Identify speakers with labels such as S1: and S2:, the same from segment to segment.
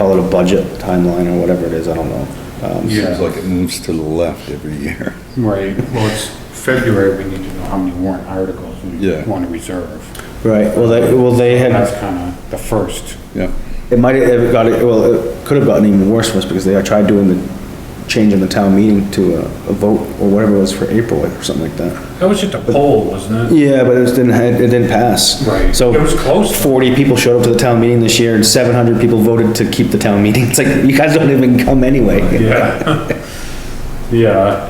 S1: call it a budget timeline or whatever it is, I don't know. Um,
S2: Yeah.
S3: Seems like it moves to the left every year.
S2: Right, well, it's February, we need to know how many warrant articles we
S3: Yeah.
S2: want to reserve.
S1: Right, well, they, well, they
S2: And
S1: had,
S2: that's kind of the first.
S3: Yeah.
S1: it might have got, it. well, it could have gotten even worse for us because they tried doing the change in the town meeting to a, a vote or whatever it was for April or something like that.
S2: That was just a poll, wasn't
S1: Yeah, but it was, didn't, it didn't pass.
S2: Right.
S1: So.
S2: It was close.
S1: Forty people showed up to the town meeting this year and seven hundred people voted to keep the town meeting. It's like, you guys don't even come anyway.
S2: Yeah. Yeah.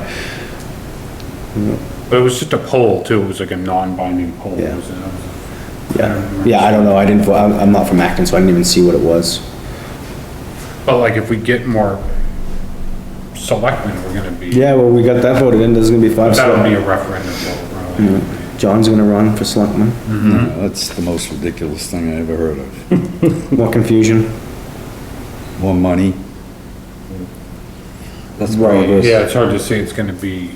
S2: But it was just a poll too, it was like a non-binding poll.
S1: Yeah.
S2: was it?
S1: Yeah, yeah, I don't know, I didn't, vo- I'm, I'm not from Acton, so I didn't even see what it was.
S2: But like if we get more selectmen, we're gonna be,
S1: Yeah, well, we got that voted in, there's gonna be five.
S2: that'll be
S1: select-
S2: a referendum vote probably.
S1: John's gonna run for selectman,
S3: No, That's the most ridiculous thing I ever heard of.
S1: more confusion.
S3: More money. That's
S1: Right.
S3: probably,
S2: Yeah, it's hard to say it's gonna be,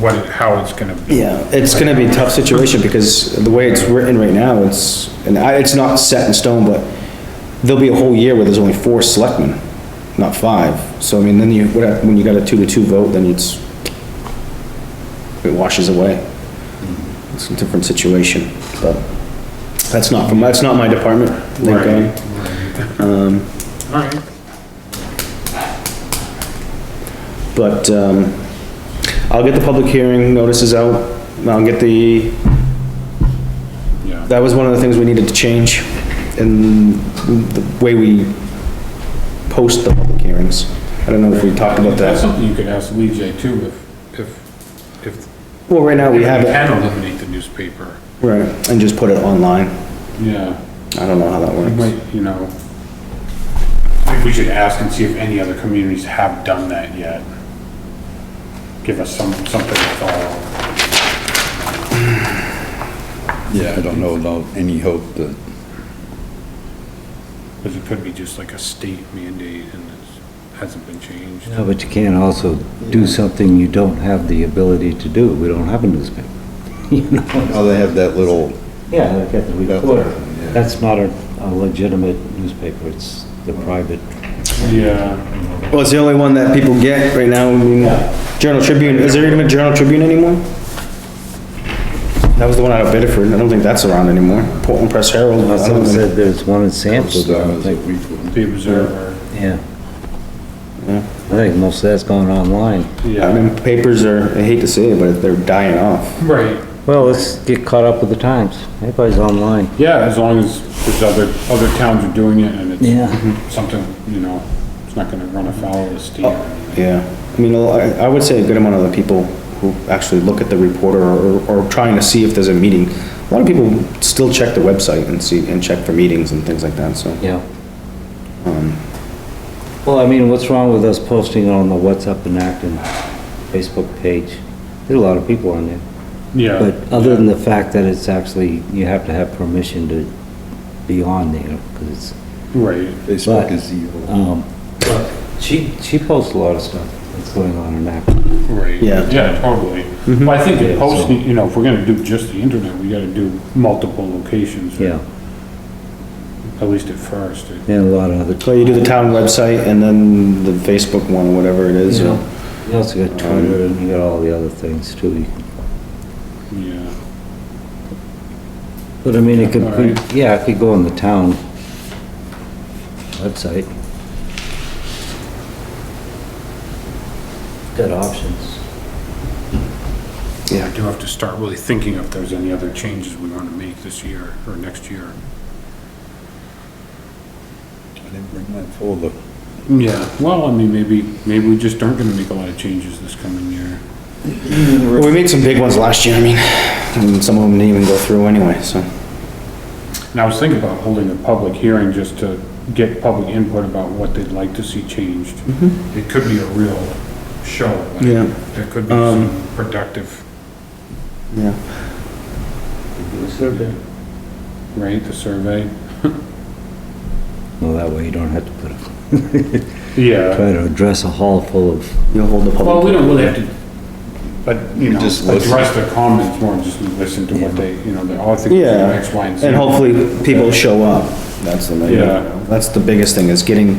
S2: what, it- how it's gonna be.
S1: Yeah, it's gonna be a tough situation because the way it's written right now, it's, and I, it's not set in stone, but there'll be a whole year where there's only four selectmen, not five. So I mean, then you, what hap- when you got a two to two vote, then it's, it washes away. It's a different situation, but that's not from, that's not my department, thank
S2: Right.
S1: God. Um,
S2: All right.
S1: But, um, I'll get the public hearing notices out, and I'll get the
S2: Yeah.
S1: that was one of the things we needed to change in the way we post the public hearings. I don't know if we talked about
S2: That's
S1: that.
S2: something you could ask Lee J too, if, if, if.
S1: Well, right now we have
S2: You
S1: it,
S2: Can eliminate the newspaper,
S1: right, and just put it online.
S2: yeah,
S1: I don't know how that
S2: you
S1: works.
S2: might, you know. I think we should ask and see if any other communities have done that yet. Give us some, something to follow.
S3: yeah, I don't know about any hope that,
S2: Because it could be just like a state mandate and it hasn't been changed.
S4: No, but you can't also do something you don't have the ability to do. We don't have a newspaper.
S3: oh, they have that little,
S4: Yeah, look at the
S3: reporter.
S4: That's not a a legitimate newspaper. It's the private.
S2: Yeah.
S1: Well, it's the only one that people get right now, I mean, Journal Tribune, is there even a Journal Tribune anymore? That was the one out of Bedford, I don't think that's around anymore. Portland Press Herald, I don't
S4: Someone
S1: think-
S4: said there's one in Sanford, but I don't
S3: stars that
S4: think,
S3: we wouldn't.
S2: The Observer,
S4: yeah. I think most of that's going online.
S1: I
S2: yeah,
S1: mean, papers are, I hate to say it, but they're dying off.
S2: right,
S4: Well, let's get caught up with the times. Everybody's online.
S2: yeah, as long as there's other, other towns are doing it and it's Mhm.
S4: Yeah.
S2: something, you know, it's not gonna run afoul of the state. or anything.
S4: Oh.
S1: Yeah, I mean, a lo- I I would say a good amount of the people who actually look at the reporter or, or trying to see if there's a meeting, a lot of people still check the website and see, and check for meetings and things like that, so.
S4: Yeah. Well, I mean, what's wrong with us posting it on the What's Up in Acton Facebook page? There's a lot of people on there.
S2: Yeah.
S4: But other than the fact that it's actually, you have to have permission to be on there, because
S2: Right,
S3: Facebook is evil.
S4: um, she, she posts a lot of stuff that's going on in that.
S2: right.
S1: Yeah.
S2: Yeah, totally. Well, I think
S4: Mm-hmm. Yeah,
S2: it posts,
S4: so-
S2: you know, if we're gonna do just the internet, we gotta do multiple locations. or
S4: Yeah,
S2: At least at first. or-
S4: and a lot of other.
S1: So you do the town website and then the Facebook one, or whatever it is, or-
S4: You also got Twitter and you got all the other things too.
S2: Yeah,
S4: But I mean, it could,
S2: All right.
S4: yeah, it could go on the town website. Got options.
S2: I do have to start really thinking if there's any other changes we wanna make this year or next year.
S3: I didn't bring my folder.
S2: Yeah, well, I mean, maybe, maybe we just aren't gonna make a lot of changes this coming year.
S1: Well, we made some big ones last year, I mean, and some of them didn't even go through anyway, so.
S2: And I was thinking about holding a public hearing just to get public input about what they'd like to see changed. It could be a real show. like,
S1: Yeah.
S2: There could be some productive,
S1: Yeah.
S2: right, the survey?
S4: Well, that way you don't have to put a
S2: Yeah.
S4: try to address a hall full of,
S1: You'll hold the
S2: Well, we
S1: public.
S2: don't really have to, but, you know,
S3: Just listen.
S2: address their comments more, and just listen to what they, you know, they all think
S1: Yeah,
S2: X, Y, and Z.
S1: and hopefully people show up, that's the, main-
S2: Yeah.
S1: that's the biggest thing, is getting